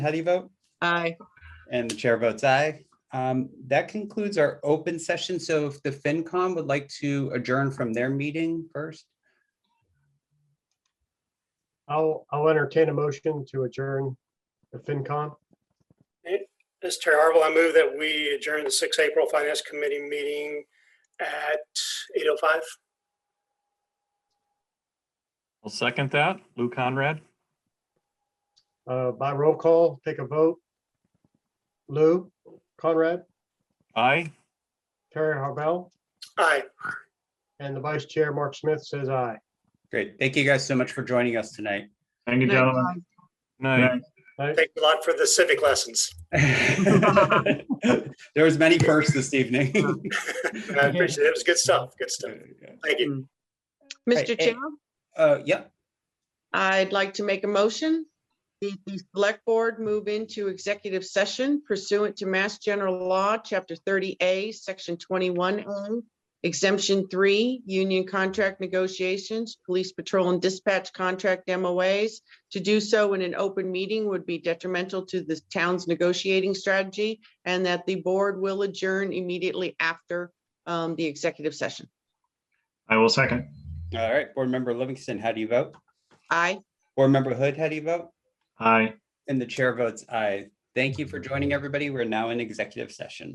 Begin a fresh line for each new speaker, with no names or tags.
How do you vote?
Aye.
And the chair votes aye. Um, That concludes our open session. So if the FinCom would like to adjourn from their meeting first,
I'll, I'll entertain a motion to adjourn the FinCon.
Mr. Chair Harville, I move that we adjourn the 6th April Finance Committee meeting at 8:05.
I'll second that. Lou Conrad,
Uh, By roll call, take a vote. Lou, Conrad,
aye.
Terry Harbell,
Aye.
and the Vice Chair, Mark Smith, says aye.
great. Thank you guys so much for joining us tonight.
Thank you,
Night,
gentlemen.
Bob.
Night.
Thank you a lot for the civic lessons.
There was many firsts this evening.
I appreciate it. It was good stuff. Good stuff. Thank you.
Hey,
Mr.
hey.
Chair,
Uh, Yeah,
I'd like to make a motion. The, the select board move into executive session pursuant to Mass General Law, Chapter thirty A, Section twenty-one A, exemption three, union contract negotiations, police patrol and dispatch contract MOAs. To do so in an open meeting would be detrimental to the town's negotiating strategy and that the board will adjourn immediately after um, the executive session.
I will second.
all right. Board Member Livingston, how do you vote?
Aye.
Board Member Hood, how do you vote?
Aye.
And the chair votes aye. Thank you for joining, everybody. We're now in executive session.